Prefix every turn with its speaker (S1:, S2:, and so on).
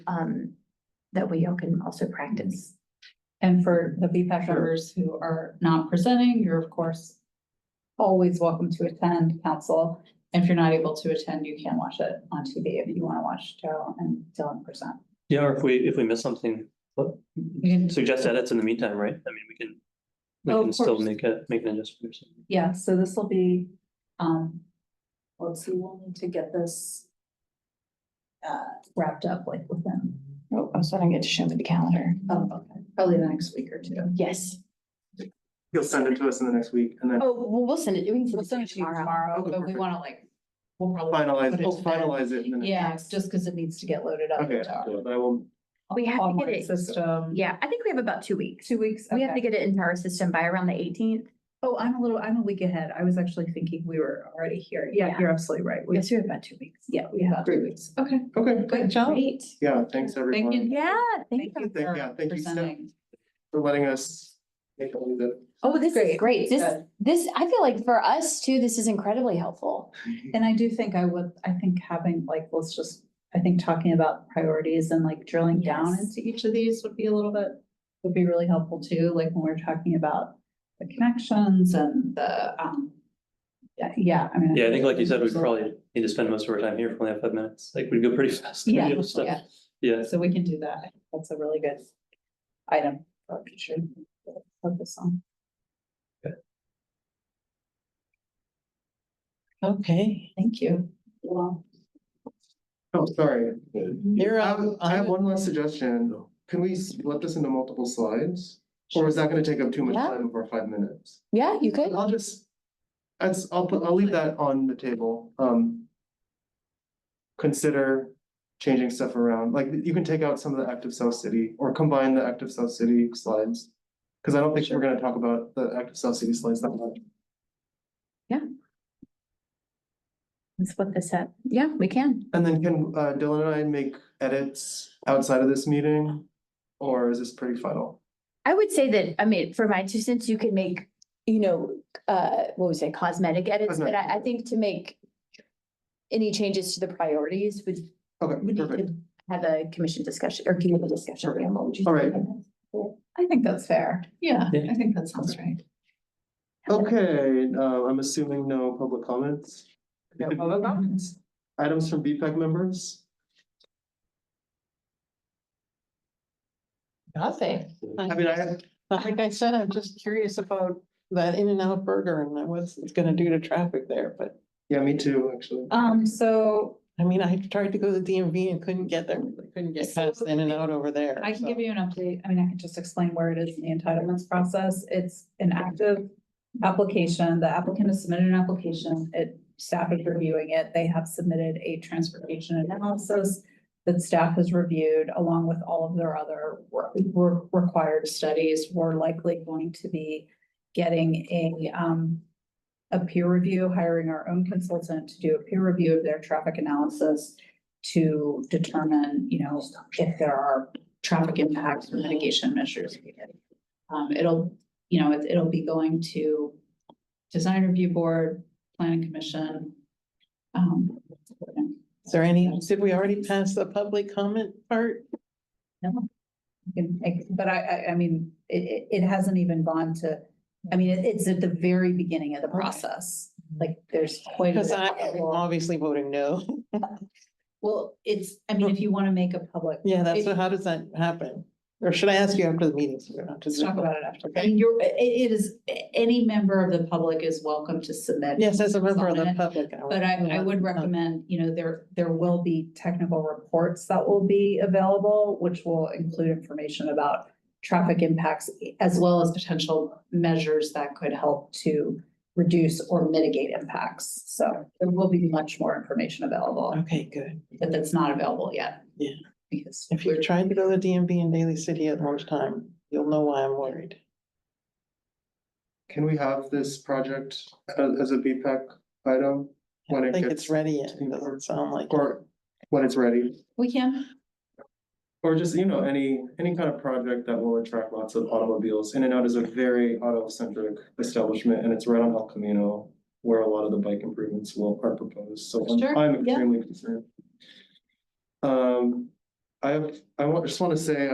S1: um, that we all can also practice.
S2: And for the BPAC
S3: Sure.
S2: members who are not presenting, you're of course always welcome to attend council. If you're not able to attend, you can watch it on TV if you want to watch Joe and Dylan present.
S3: Yeah, or if we, if we miss something, what-
S2: You can-
S3: suggest edits in the meantime, right? I mean, we can. We
S2: Oh, of
S3: can still
S2: course.
S3: make a, make an adjustment or something.
S2: Yeah, so this will be, um, let's see, we'll need to get this uh, wrapped up like within,
S1: Oh, I'm starting to get to show me the calendar.
S2: oh, okay, probably the next week or two.
S1: Yes.
S4: He'll send it to us in the next week and then
S1: Oh, well, we'll send it. we can
S2: We'll send it to you tomorrow,
S4: Okay,
S2: but we
S4: perfect.
S2: want to like, we'll probably.
S4: finalize,
S2: put
S4: we'll
S2: to bed.
S4: finalize it. in the next-
S2: Yeah, it's just because it needs to get loaded up.
S4: Okay,
S2: into our
S4: but I will,
S1: We have to get
S2: online
S1: it.
S2: System.
S1: Yeah, I think we have about two weeks.
S2: Two weeks.
S1: We have to get it into our system by around the eighteenth.
S2: Oh, I'm a little, I'm a week ahead. I was actually thinking we were already here. Yeah,
S1: Yeah.
S2: you're absolutely right. We-
S1: we have about two weeks.
S2: Yeah, we have three weeks. Okay.
S4: okay,
S2: Good job.
S1: Great.
S4: yeah, thanks everyone.
S1: Yeah, thank you.
S4: Thank- yeah,
S2: for
S4: thank you, Steph.
S2: presenting.
S4: For letting us make all the.
S1: Oh, this is
S2: Great.
S1: great. This,
S2: Good.
S1: this, I feel like for us too, this is incredibly helpful.
S2: And I do think I would, I think having like, let's just, I think talking about priorities and like drilling down
S1: Yes.
S2: into each of these would be a little bit, would be really helpful too, like when we're talking about the connections and the, um, yeah, yeah, I mean.
S3: Yeah, I think like you said, we
S2: there's a-
S3: probably need to spend most of our time here for only have five minutes. Like, we'd go pretty fast. through
S2: Yeah,
S3: the other stuff.
S2: yeah.
S3: Yeah,
S2: So we can do that. That's a really good item for future focus on.
S5: Okay,
S2: Thank you. Well,
S4: Oh, sorry.
S2: Mm-hmm.
S5: you're
S4: I have-
S5: on,
S4: I have
S5: on-
S4: one last suggestion. Can we split this into multiple slides? Or is that gonna take up too much
S1: Yeah.
S4: time of our five minutes?
S1: Yeah, you could.
S4: I'll just, that's, I'll put, I'll leave that on the table, um. Consider changing stuff around, like you can take out some of the active South City or combine the active South City slides. Cause I don't think we're gonna talk about the active South City slides that much.
S1: That's what this said. Yeah, we can.
S4: And then can uh Dylan and I make edits outside of this meeting? Or is this pretty final?
S1: I would say that, I mean, for my two cents, you can make, you know, uh, what would you say, cosmetic edits, but I, I
S4: Cosmetic.
S1: think to make any changes to the priorities would,
S4: Okay,
S1: would need
S4: perfect.
S1: to have a commission discussion or community discussion.
S4: Perfect.
S1: Pam, what would you
S4: All
S1: think?
S4: right.
S2: I think that's fair. Yeah,
S3: Yeah.
S2: I think that sounds right.
S4: Okay, uh, I'm assuming no public comments.
S5: No public comments.
S4: Items from BPEC members?
S5: nothing.
S2: Uh,
S4: I mean, I,
S5: Like I said, I'm just curious about that In-N-Out Burger and what it's gonna do to traffic there, but
S4: yeah, me too, actually.
S5: Oh.
S2: Um, so
S5: I mean, I tried to go to the DMV and couldn't get there. I couldn't get past the In-N-Out over there.
S2: I can
S5: so.
S2: give you an update. I mean, I can just explain where it is in the entitlements process. It's an active application. The applicant has submitted an application. It, staff is reviewing it. They have submitted a transportation analysis that staff has reviewed along with all of their other re- re- required studies. We're likely going to be getting a, um, a peer review, hiring our own consultant to do a peer review of their traffic analysis to determine, you know, if there are traffic impacts or mitigation measures. needed. Um, it'll, you know, it- it'll be going to design review board, planning commission. Um,
S5: Is there any, did we already pass the public comment part?
S2: you can make- but I, I, I mean, it, it, it hasn't even gone to, I mean, it- it's at the very beginning of the process. Like, there's quite. a
S5: Because
S2: bit
S5: I
S2: that
S5: am
S2: will-
S5: obviously voting no.
S2: Well, it's, I mean, if you want to make a public.
S5: Yeah, that's,
S2: if-
S5: what- how does that happen? Or should I ask you after the meeting? so we're not just-
S2: Let's talk about it after.
S5: Okay.
S2: And you're, it, it is, any member of the public is welcome to submit.
S5: Yes, as a member of the
S2: Comment.
S5: public. Uh,
S2: But I, I would recommend, you know, there, there will be technical reports that will be available, which will include information about traffic impacts as well as potential measures that could help to reduce or mitigate impacts. So there will be much more information available,
S5: Okay, good.
S2: but that's not available yet.
S5: Yeah.
S2: Because
S5: If
S2: we're
S5: you're trying to go to DMV in Daly City at lunchtime, you'll know why I'm worried.
S4: Can we have this project as, as a BPEC item?
S5: I
S4: When
S5: don't
S4: it
S5: think
S4: gets
S5: it's ready yet.
S4: to
S5: It
S4: work.
S5: doesn't sound like. it.
S4: Or when it's ready,
S2: We can,
S4: or just, you know, any, any kind of project that will attract lots of automobiles. In-N-Out is a very auto-centric establishment and it's right on El Camino where a lot of the bike improvements will, are proposed, so I'm-
S2: Sure,
S4: I'm
S2: yeah.
S4: extremely concerned. Um, I have, I want, just want to say,